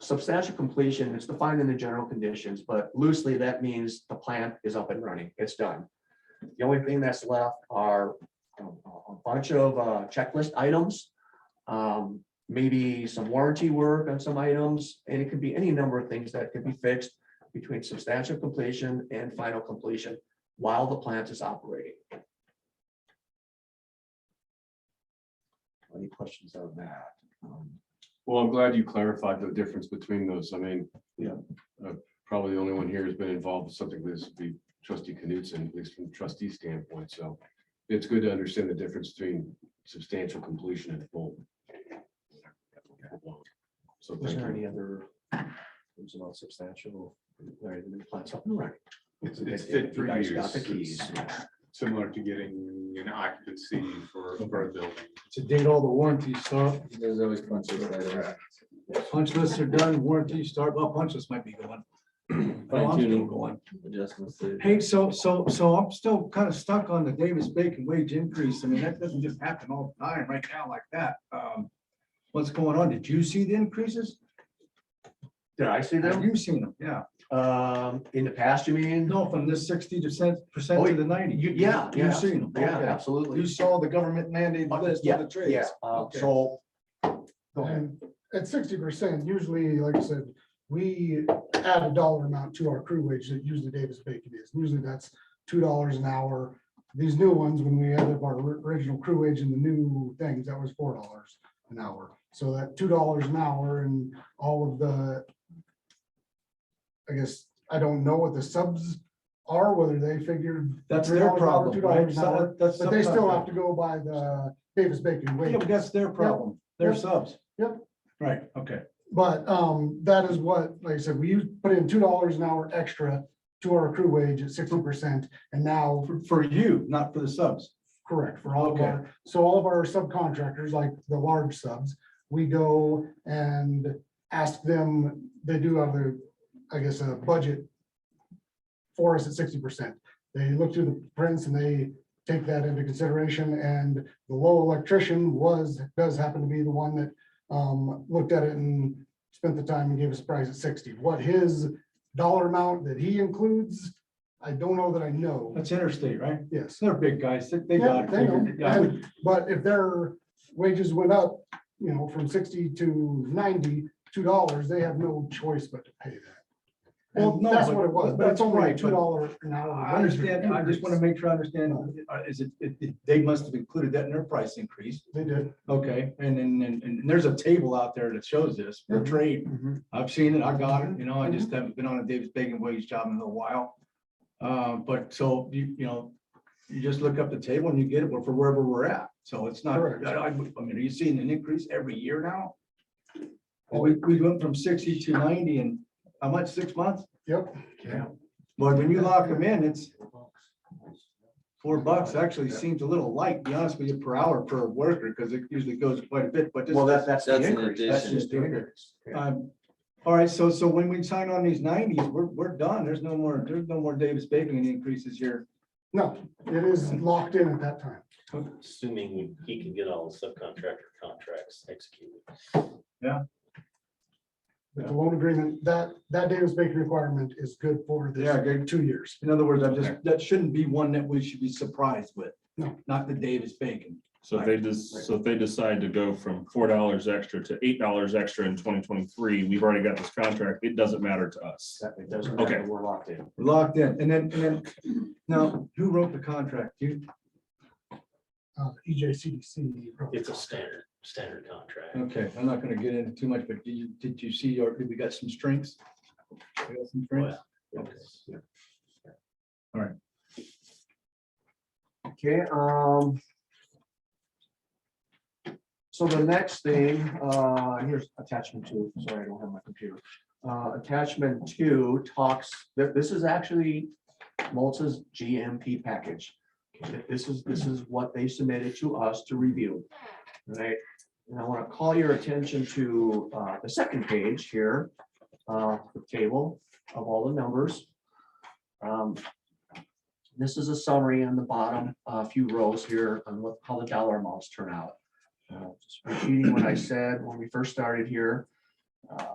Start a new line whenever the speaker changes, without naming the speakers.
Substantial completion is defined in the general conditions, but loosely that means the plant is up and running. It's done. The only thing that's left are you know, a a bunch of uh, checklist items. um, Maybe some warranty work on some items, and it could be any number of things that could be fixed between substantial completion and final completion while the plant is operating. Any questions on that? Um,
Well, I'm glad you clarified the difference between those. I mean.
Yeah.
uh, Probably the only one here has been involved with something like this would be trustee Knudsen, at least from the trustee standpoint, so. It's good to understand the difference between substantial completion and full. So
Was
thank
there
you.
any other? It was about substantial. Larry, the new plant's up and running.
It's,
You
it's fit for
guys
use.
got the keys.
It's Similar to getting an occupancy for, for a building.
to date all the warranties, so. There's always punch lists. Punch lists are done, warranties start, well, punch lists might be going. I know I'm still going.
adjustments to.
Hey, so, so, so I'm still kind of stuck on the Davis Bacon wage increase. I mean, that doesn't just happen all the time right now like that. Um, What's going on? Did you see the increases?
Did I see
Have
them?
you seen them? Yeah.
Um, in the past, you mean?
No, from this sixty percent, percent
Oh,
to the ninety.
you- yeah, yeah.
You've seen them.
Yeah,
Okay. You
absolutely.
saw the government mandated list
Yeah,
of the trades.
Yeah, uh,
Okay.
so. Go ahead.
And at sixty percent, usually, like I said, we add a dollar amount to our crew wage that usually Davis Bacon is. Usually that's two dollars an hour. These new ones, when we added up our ri- original crew wage and the new things, that was four dollars an hour. So that two dollars an hour and all of the, I guess, I don't know what the subs are, whether they figured,
That's
Three
their
dollars an hour,
problem,
two
right?
dollars an hour,
That- that's
but they still have
subcontract.
to go by the Davis Bacon wage.
Yeah, but that's their problem. They're
Yep.
subs.
Yep.
Right, okay.
But um, that is what, like I said, we used- put in two dollars an hour extra to our crew wage at sixty percent, and now,
For, for you, not for the subs.
correct, for all of our, so all of our subcontractors, like the large subs, we go and ask them, they do have their, I guess, a budget for us at sixty percent. They look through the prints and they take that into consideration, and the low electrician was, does happen to be the one that um, looked at it and spent the time and gave us a price at sixty. What his dollar amount that he includes, I don't know that I know.
That's interstate, right?
Yes,
They're big guys. They they
Yeah,
got it
they know.
figured. Yeah, I would-
but if their wages went up, you know, from sixty to ninety, two dollars, they have no choice but to pay that.
Well,
And
no,
that's
but-
what it was,
but
but it's only a
right, but-
two dollar an hour.
I understand. I just want to
increase.
make sure I understand. uh, Is it, it- it- they must have included that in their price increase.
They did.
Okay, and then, and, and there's a table out there that shows this for
Mhm.
trade.
Mhm.
I've seen it. I got
Mm-hmm.
it, you know, I just haven't been on a Davis Bacon wage job in a little while. Uh, but so you, you know, you just look up the table and you get it for wherever we're at. So it's not,
Correct.
I, I I mean, are you seeing an increase every year now?
Oh.
We, we went from sixty to ninety in how much, six months?
Yep.
Yeah. But when you lock them in, it's four bucks actually seems a little light, to be honest with you, per hour per worker, because it usually goes quite a bit, but this.
Well, that, that's the
That's an
increase. That's
addition.
just the increase. Yeah.
Um, All right, so, so when we sign on these nineties, we're, we're done. There's no more, there's no more Davis Bacon increases here.
No, it is locked in at that time.
assuming he can get all the subcontractor contracts executed.
But the loan agreement, that, that Davis Bacon requirement is good for this.
Yeah, good.
Two years.
In other words, I'm just, that shouldn't be one that we should be surprised with.
No.
Not the Davis Bacon.
So if they just, so if they decide to go from four dollars extra to eight dollars extra in twenty twenty-three, we've already got this contract, it doesn't matter to us.
That- It doesn't matter,
Okay.
we're locked in.
We're Locked in. And then, and then, now, who wrote the contract? You,
Uh, EJCDC. wrote the
It's a
contract.
standard, standard contract.
okay, I'm not gonna get into too much, but did you, did you see, or did we got some strings? We got some strings?
Okay, um. So the next thing, uh, here's attachment two, sorry, I don't have my computer. Uh, attachment two talks, th- this is actually Malta's GMP package. Th- This is, this is what they submitted to us to review, right? And I want to call your attention to, uh, the second page here, uh, the table of all the numbers. Um, this is a summary on the bottom, a few rows here on what, how the dollar amounts turn out. Uh, just Repeating what I said when we first started here. uh,